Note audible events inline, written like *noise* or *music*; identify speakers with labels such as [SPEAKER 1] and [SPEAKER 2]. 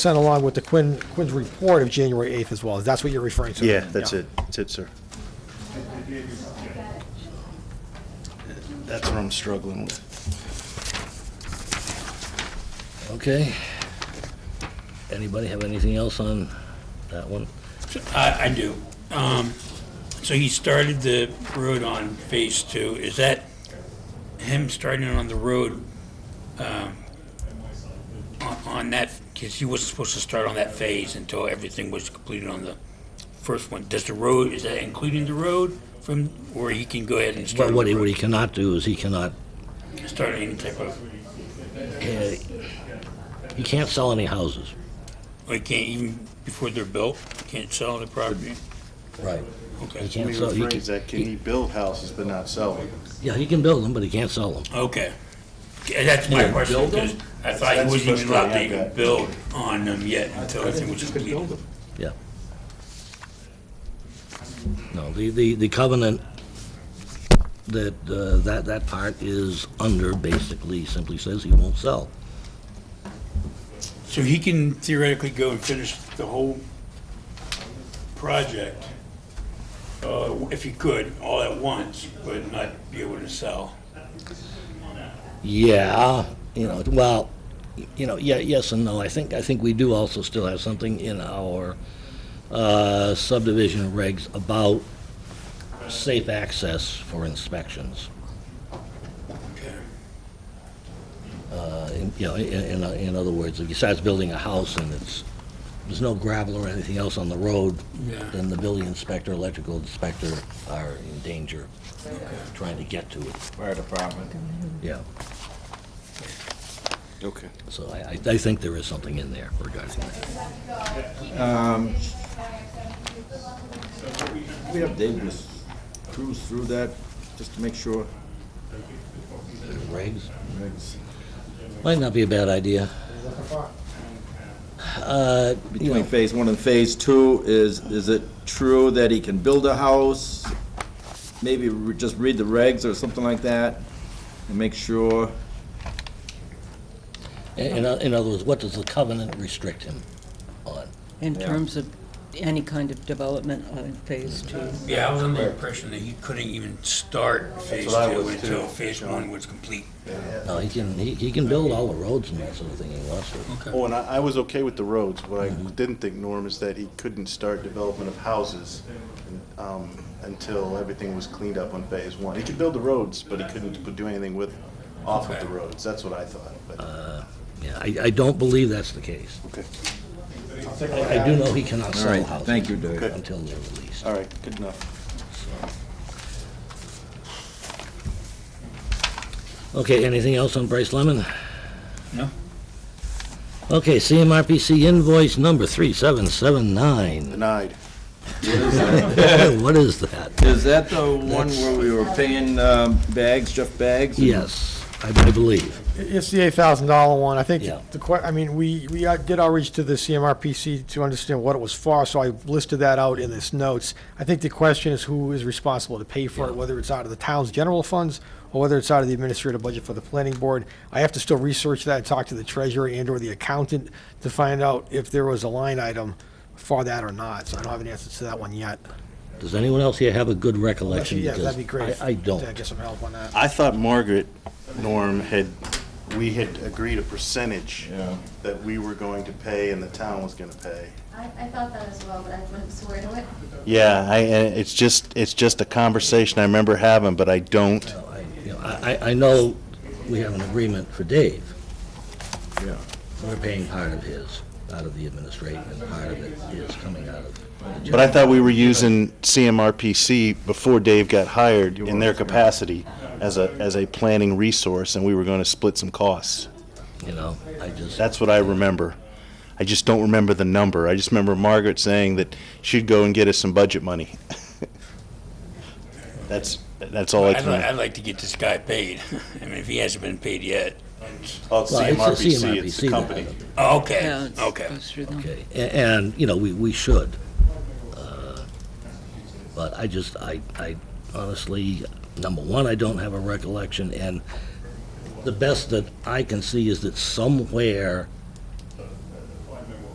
[SPEAKER 1] sent along with the Quinn, Quinn's report of January 8th as well. That's what you're referring to?
[SPEAKER 2] Yeah, that's it. That's it, sir. That's what I'm struggling with.
[SPEAKER 3] Okay. Anybody have anything else on that one?
[SPEAKER 4] Uh, I, I do. Um, so he started the road on phase two. Is that him starting on the road, um, on, on that, because he wasn't supposed to start on that phase until everything was completed on the first one. Does the road, is that including the road from, or he can go ahead and start?
[SPEAKER 3] But what he,
[SPEAKER 4] on the
[SPEAKER 3] what he cannot do is he cannot,
[SPEAKER 4] road, Start any type of,
[SPEAKER 3] uh, he can't sell any houses.
[SPEAKER 4] or he can't even, before they're built, can't sell the property?
[SPEAKER 3] Right. He
[SPEAKER 4] Okay,
[SPEAKER 2] Let
[SPEAKER 3] can't
[SPEAKER 2] me
[SPEAKER 3] sell, he can,
[SPEAKER 2] rephrase that. Can he build houses but not sell them?
[SPEAKER 3] yeah, he can build them, but he can't sell them.
[SPEAKER 4] okay. Yeah, That's my
[SPEAKER 3] Yeah,
[SPEAKER 4] question, because I thought he
[SPEAKER 2] That's
[SPEAKER 4] wasn't even allowed to
[SPEAKER 2] frustrating, I
[SPEAKER 4] even
[SPEAKER 2] bet.
[SPEAKER 4] build on them yet until everything was completed.
[SPEAKER 3] Yeah. No, the, the, the covenant, that, uh, that, that part is under, basically, simply says he won't sell.
[SPEAKER 4] So he can theoretically go and finish the whole project, uh, if he could, all at once, but not be able to sell.
[SPEAKER 3] Yeah, you know, well, you know, yeah, yes and no. I think, I think we do also still have something in our uh, subdivision regs about safe access for inspections.
[SPEAKER 4] Okay.
[SPEAKER 3] Uh, in- You know, in, in- in other words, if you start building a house and it's, there's no gravel or anything else on the road,
[SPEAKER 4] Yeah.
[SPEAKER 3] then the building inspector, electrical inspector are in danger trying to get to it.
[SPEAKER 2] Fire department.
[SPEAKER 3] Yeah,
[SPEAKER 2] Okay.
[SPEAKER 3] so I, I- I think there is something in there regarding that.
[SPEAKER 5] We have David just cruise through that, just to make sure.
[SPEAKER 3] Regs?
[SPEAKER 5] Regs.
[SPEAKER 3] Might not be a bad idea. Uh, you
[SPEAKER 5] Between
[SPEAKER 3] know,
[SPEAKER 5] phase one and phase two, is, is it true that he can build a house? Maybe re- just read the regs or something like that, and make sure,
[SPEAKER 3] in, in other words, what does the covenant restrict him on?
[SPEAKER 6] In terms of any kind of development on phase two.
[SPEAKER 4] Yeah, I was under the impression that he couldn't even start phase
[SPEAKER 2] what I
[SPEAKER 4] two
[SPEAKER 2] was too,
[SPEAKER 4] until phase one was complete.
[SPEAKER 3] No, he can, he, he can build all the roads and that sort of thing he wants to.
[SPEAKER 2] Oh, and I, I was okay with the roads. What I didn't think, Norm, is that he couldn't start development of houses um, until everything was cleaned up on phase one. He could build the roads, but he couldn't do anything with, off of the
[SPEAKER 4] Okay.
[SPEAKER 2] roads. That's what I thought, but,
[SPEAKER 3] Yeah, I, I don't believe that's the case.
[SPEAKER 2] okay.
[SPEAKER 3] I I do know he cannot
[SPEAKER 5] all
[SPEAKER 3] sell
[SPEAKER 5] right,
[SPEAKER 3] houses.
[SPEAKER 5] thank you, Dave.
[SPEAKER 3] Until they're released.
[SPEAKER 2] All right, good enough.
[SPEAKER 3] Okay, anything else on Bryce Lemon?
[SPEAKER 4] No?
[SPEAKER 3] Okay, CMRPC invoice number
[SPEAKER 5] *laughs*
[SPEAKER 3] 3779.
[SPEAKER 2] Denied.
[SPEAKER 3] What is that?
[SPEAKER 5] Is that the one where we were paying um, bags, Jeff Bags?
[SPEAKER 3] Yes, I I believe.
[SPEAKER 1] It's the $8,000 one. I think
[SPEAKER 3] Yeah.
[SPEAKER 1] the que, I mean, we, we uh, did outreach to the CMRPC to understand what it was for, so I listed that out in this notes. I think the question is who is responsible to pay for it, whether it's out of the town's general funds or whether it's out of the administrative budget for the planning board. I have to still research that, talk to the treasurer and/or the accountant to find out if there was a line item for that or not, so I don't have an answer to that one yet.
[SPEAKER 3] Does anyone else here have a good recollection?
[SPEAKER 1] Yeah, that'd be
[SPEAKER 3] Because
[SPEAKER 1] great.
[SPEAKER 3] I, I don't.
[SPEAKER 1] Yeah, Get some help on that.
[SPEAKER 2] I thought Margaret, Norm, had, we had agreed a percentage
[SPEAKER 5] Yeah.
[SPEAKER 2] that we were going to pay and the town was gonna pay.
[SPEAKER 7] I, I thought that as well, but I wouldn't swear to it.
[SPEAKER 2] Yeah, I, and it's just, it's just a conversation I remember having, but I don't.
[SPEAKER 3] I- you know, I, I- I know we have an agreement for Dave.
[SPEAKER 5] Yeah.
[SPEAKER 3] We're paying part of his, out of the administration, and part of it is coming out of.
[SPEAKER 2] But I thought we were using CMRPC before Dave got hired in their capacity as a, as a planning resource, and we were gonna split some costs.
[SPEAKER 3] You know, I just,
[SPEAKER 2] That's what I remember. I just don't remember the number. I just remember Margaret saying that she'd go and get us some budget money. *laughs* That's, that's all I
[SPEAKER 4] I'd,
[SPEAKER 2] can
[SPEAKER 4] li-
[SPEAKER 2] remember.
[SPEAKER 4] I'd like to get this guy paid. *laughs* I mean, if he hasn't been paid yet.
[SPEAKER 2] Oh, it's
[SPEAKER 3] Well, it's a
[SPEAKER 2] CMRPC, it's the
[SPEAKER 3] CMRPC
[SPEAKER 2] company.
[SPEAKER 4] Oh, Okay,
[SPEAKER 6] Yeah, it's-
[SPEAKER 4] okay.
[SPEAKER 6] goes through them.
[SPEAKER 3] okay, A- and, you know, we, we should. Uh, But I just, I, I honestly, number one, I don't have a recollection, and the best that I can see is that somewhere